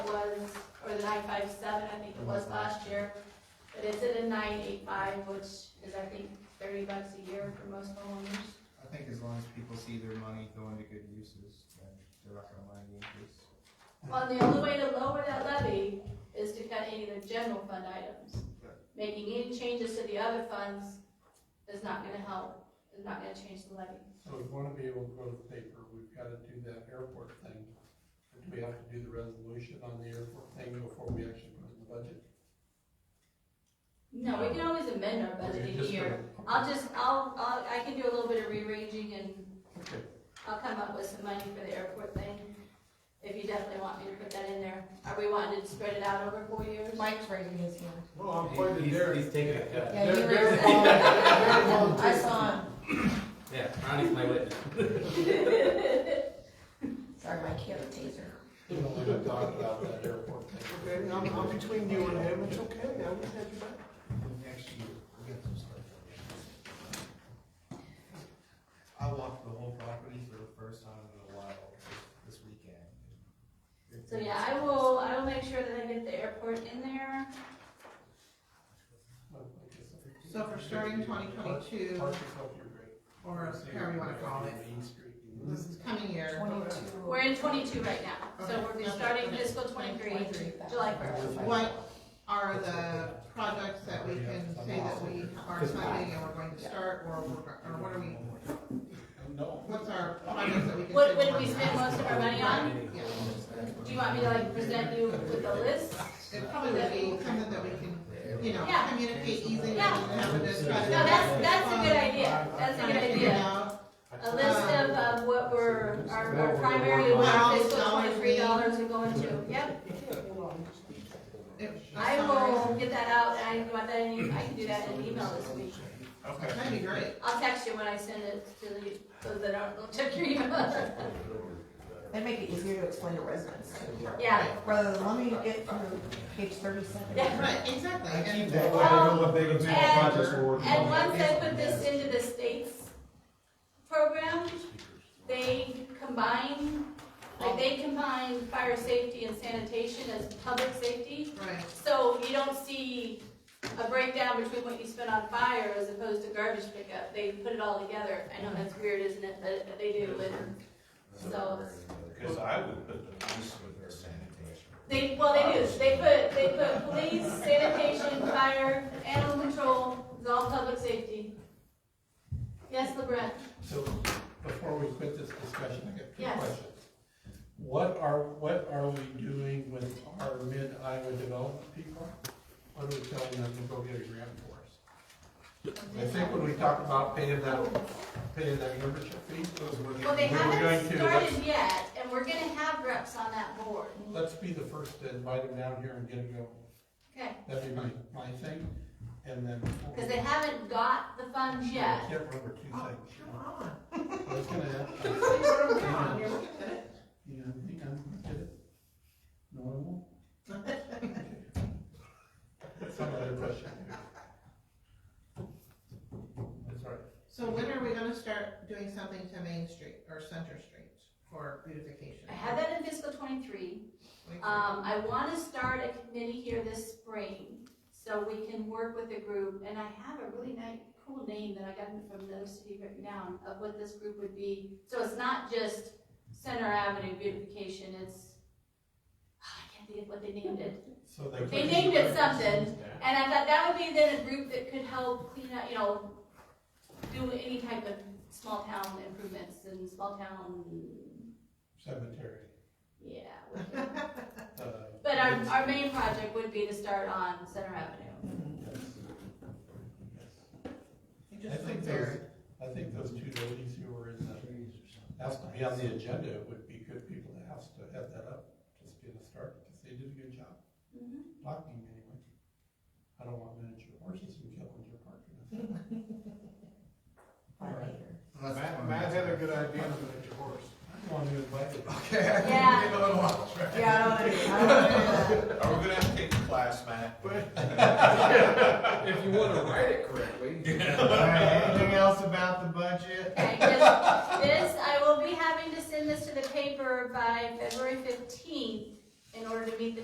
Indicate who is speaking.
Speaker 1: a nine five seven, I think it was last year. But it's at a nine eight five, which is, I think, thirty bucks a year for most homeowners.
Speaker 2: I think as long as people see their money going to good uses, then they're not gonna mind the increase.
Speaker 1: Well, the only way to lower that levy is to cut any of the general fund items.
Speaker 2: Right.
Speaker 1: Making any changes to the other funds is not gonna help, is not gonna change the levy.
Speaker 3: So we wanna be able to go to the paper, we've gotta do that airport thing. Do we have to do the resolution on the airport thing before we actually put it in the budget?
Speaker 1: No, we can always amend our budget
Speaker 3: Okay,
Speaker 1: in a
Speaker 3: just
Speaker 1: year.
Speaker 3: for-
Speaker 1: I'll just, I'll, I'll, I can do a little bit of rearranging and
Speaker 3: Okay,
Speaker 1: I'll come up with some money for the airport thing. If you definitely want me to put that in there. Are we wanting to spread it out over four years?
Speaker 4: Mike's raising his hand.
Speaker 5: No, I'm
Speaker 6: He-
Speaker 5: pointing
Speaker 6: he's-
Speaker 5: there.
Speaker 6: He's taking a cut.
Speaker 4: Yeah, he
Speaker 5: They're-
Speaker 4: raised
Speaker 5: they're-
Speaker 4: all
Speaker 5: they're
Speaker 4: of it. I
Speaker 5: volunteers.
Speaker 4: saw him.
Speaker 6: Yeah, Ronnie's my witness.
Speaker 4: Sorry, Mike, you have a taser.
Speaker 3: we don't wanna talk about that airport thing.
Speaker 5: Okay, I'm, I'm between you and him, it's okay, I will have you back.
Speaker 2: Next year, we'll get some stuff. I walked the whole property for the first time in a while this weekend.
Speaker 1: So yeah, I will, I will make sure that I get the airport in there.
Speaker 7: So for starting twenty twenty-two,
Speaker 3: Park yourself, you're great.
Speaker 7: or however you wanna call it,
Speaker 3: Main Street.
Speaker 7: this is coming year,
Speaker 4: Twenty-two.
Speaker 1: We're in twenty-two right now, so we're starting fiscal twenty-three, July first.
Speaker 7: what are the projects that we can say that we are funding and we're going to start, or, we're- or what are we,
Speaker 3: No.
Speaker 7: what's our projects that we can say?
Speaker 1: What,
Speaker 7: we're
Speaker 1: what did we
Speaker 7: working
Speaker 1: spend
Speaker 7: on?
Speaker 1: most of our money on?
Speaker 7: Yeah.
Speaker 1: Do you want me to like present you with a list?
Speaker 7: It probably would be something that we can, you know,
Speaker 1: Yeah.
Speaker 7: communicate easily,
Speaker 1: Yeah.
Speaker 7: and have it.
Speaker 1: No, that's, that's a good idea, that's a good idea. A list of, um, what we're, our, our primary, what our fiscal twenty-three dollars are going to, yep. I will get that out, and I want that in, you- I can do that in an email this week.
Speaker 2: Okay.
Speaker 7: That'd be great.
Speaker 1: I'll text you when I send it to the, so that I don't check your email.
Speaker 4: They make it easier to explain to residents,
Speaker 1: Yeah,
Speaker 4: rather than let me get through page thirty-seven.
Speaker 1: Yeah.
Speaker 7: Right, exactly.
Speaker 2: I keep
Speaker 7: And-
Speaker 2: that, way, I know what big and small projects we're working on.
Speaker 1: And once I put this into the state's program, they combine, like they combine fire safety and sanitation as public safety.
Speaker 7: Right,
Speaker 1: So you don't see a breakdown between what you spend on fire as opposed to garbage pickup. They put it all together. I know that's weird, isn't it? But they do it. So,
Speaker 8: Cause I would put the police with their sanitation.
Speaker 1: they, well, they do. They put, they put police, sanitation, fire, animal control, it's all public safety. Yes, LeBron?
Speaker 3: So before we quit this discussion, I got two
Speaker 1: Yes.
Speaker 3: questions. What are, what are we doing with our mid Iowa development people? What are we telling them to go get a grant for us? I think when we talk about paying that, paying that membership fee, those were the.
Speaker 1: Well, they
Speaker 3: we were going
Speaker 1: haven't
Speaker 3: to-
Speaker 1: started yet, and we're gonna have reps on that board.
Speaker 3: Let's be the first to invite them down here and get it going.
Speaker 1: Okay,
Speaker 3: That'd be my, my thing, and then.
Speaker 1: because they haven't got the funds
Speaker 3: I
Speaker 1: yet. Oh,
Speaker 3: can't remember two things.
Speaker 7: on.
Speaker 3: I was gonna ask.
Speaker 7: Come on, here, look at it.
Speaker 3: Yeah, I think I'm good. Normal? Some other question. That's all right.
Speaker 7: So when are we gonna start doing something to Main Street or Center Street for beautification?
Speaker 1: I had that in fiscal twenty-three.
Speaker 7: Like,
Speaker 1: Um, I wanna start a committee here this spring, so we can work with a group, and I have a really nice, cool name that I got from another city written down of what this group would be. So it's not just Center Avenue beautification, it's, ah, I can't think of what they named it.
Speaker 3: So they.
Speaker 1: They named it something. And I thought that would be then a group that could help clean up, you know, do any type of small town improvements and small town,
Speaker 3: Cemetery.
Speaker 1: yeah. what-
Speaker 3: uh,
Speaker 1: But our, our main project would be to start on Center Avenue.
Speaker 3: I
Speaker 7: you just
Speaker 3: think
Speaker 7: look there.
Speaker 3: those, I think those two ladies who were in the, asked to be on the agenda It would be good people to ask to have that up, just get a start, because they did a good job. Blocking anyway. I don't want miniature horses in Killinger Park. you know.
Speaker 2: Unless-
Speaker 5: Matt, Matt had a good idea with your horse.
Speaker 3: I want to invite it.
Speaker 2: Okay. I can
Speaker 1: Yeah.
Speaker 2: get on watch, right?
Speaker 4: Yeah, I don't wanna do, I don't wanna do that.
Speaker 8: Are we gonna have to take a class, Matt?
Speaker 5: If you wanna write it correctly.